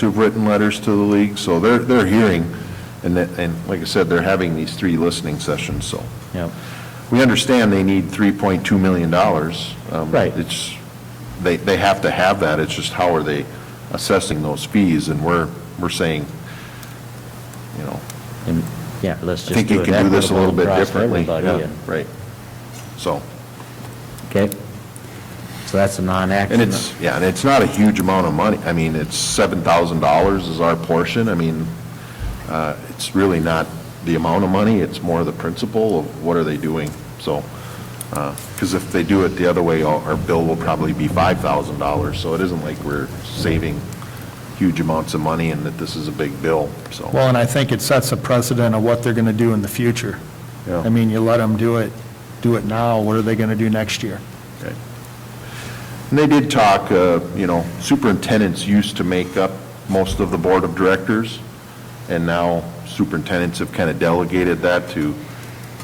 who've written letters to the league, so they're, they're hearing, and, that- and like I said, they're having these three listening sessions, so. Yep. We understand they need $3.2 million. Um, Right. It's, they, they have to have that, it's just how are they assessing those fees, and we're, we're saying, you know, And, yeah, let's I just think you do it can do this a equitable little bit across differently. everybody. Yeah, and- Right. So, Okay? So that's a non-action. and it's, yeah, and it's not a huge amount of money, I mean, it's $7,000 is our portion, I mean, uh, it's really not the amount of money, it's more the principle of what are they doing, so, because if they do it the other way, our our bill will probably be $5,000, so it isn't like we're saving huge amounts of money and that this is a big bill, so. Well, and I think it sets a precedent of what they're going to do in the future. Yeah. I mean, you let them do it, do it now, what are they going to do next year? Okay. And they did talk, uh, you know, superintendents used to make up most of the board of directors, and now superintendents have kind of delegated that to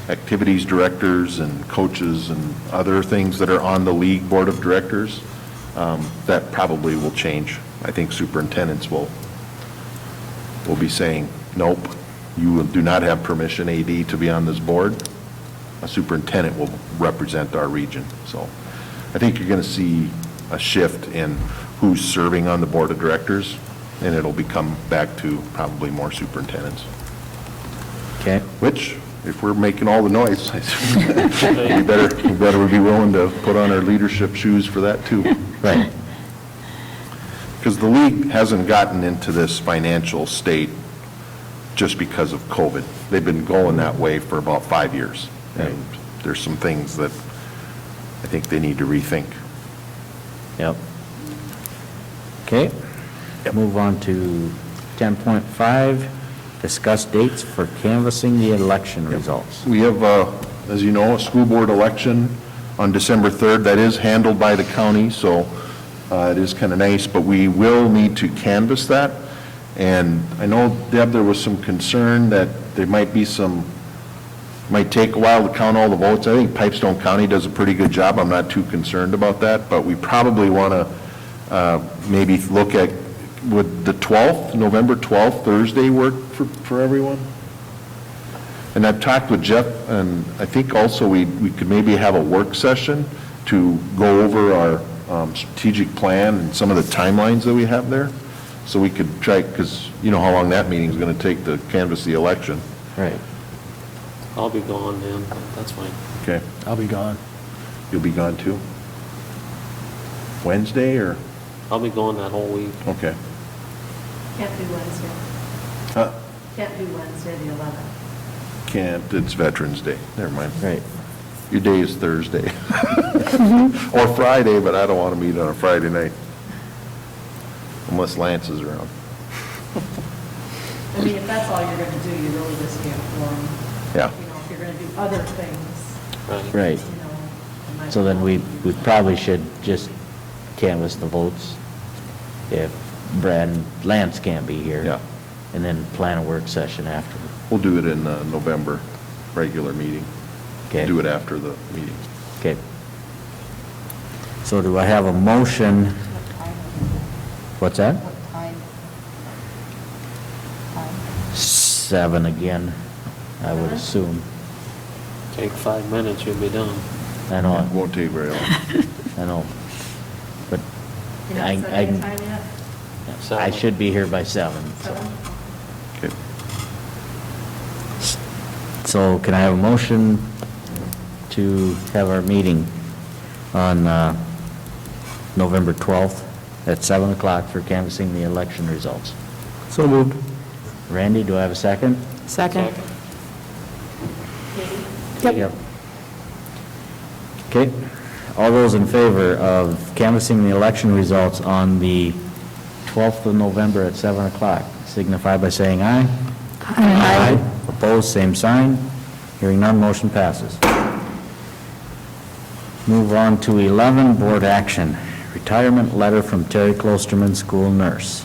activities directors and coaches and other things that are on the league board of directors. Um, That probably will change. I think superintendents will, will be saying, nope, you do not have permission, AD, to be on this board. A superintendent will represent our region, so. I think you're going to see a shift in who's serving on the board of directors, and it'll become back to probably more superintendents, Okay, which, if we're making all the noise, we better, we better be willing to put on our leadership shoes for that, too. right, Because the league hasn't gotten into this financial state just because of COVID. They've been going that way for about five years. And there's some things that I think they need to rethink. yep. Okay, move on to 10.5, discuss dates for canvassing the election results. We have, uh, as you know, a school board election on December 3rd. That is handled by the county, so uh, it is kind of nice, but we will need to canvass that. And I know, Deb, there was some concern that there might be some, might take a while to count all the votes. I think Pipestone County does a pretty good job. I'm not too concerned about that, but we probably want to uh, maybe look at, would the 12th, November 12th, Thursday work for for everyone? And I've talked with Jeff, and I think also we, we could maybe have a work session to go over our um, strategic plan and some of the timelines that we have there. So we could try, because you know how long that meeting's going to take to canvass the election. Right. I'll be gone then, but that's fine. Okay. I'll be gone. You'll be gone too? Wednesday or, I'll be gone that whole week. okay. Can't do Wednesday. Huh, Can't do Wednesday, the 11th. Can't, it's Veterans Day, never mind. Right. Your day is Thursday. Or Friday, but I don't want to meet on a Friday night. Unless Lance is around. I mean, if that's all you're going to do, you really just can't form. Yeah. You know, if you're going to do other things, you Right, know. it might so then we, we not- probably should just canvass the votes if Brad and Lance can't be here. Yeah. And then plan a work session afterward. We'll do it in uh, November, regular meeting. Okay. Do it after the meeting. Okay. So do I have a motion? What's that? Seven again, I would assume. Take five minutes, you'll be done. I know, It Won't take very long. I know. But You're not I, setting a I, time yet? I should be here by seven. so. Seven? Okay. So can I have a motion to have our meeting on uh, November 12th at 7 o'clock for canvassing the election results? So moved. Randy, do I have a second? Second. Katie? Yep. Okay, all those in favor of canvassing the election results on the 12th of November at 7 o'clock, signify by saying aye. Aye. Opposed, same sign. Hearing none, motion passes. Move on to 11, board action. Retirement letter from Terry Klosterman, school nurse.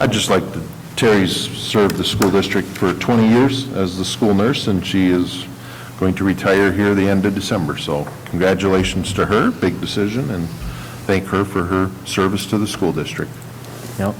I'd just like to, Terry's served the school district for 20 years as the school nurse, and she is going to retire here the end of December. So congratulations to her, big decision, and thank her for her service to the school district. Yep,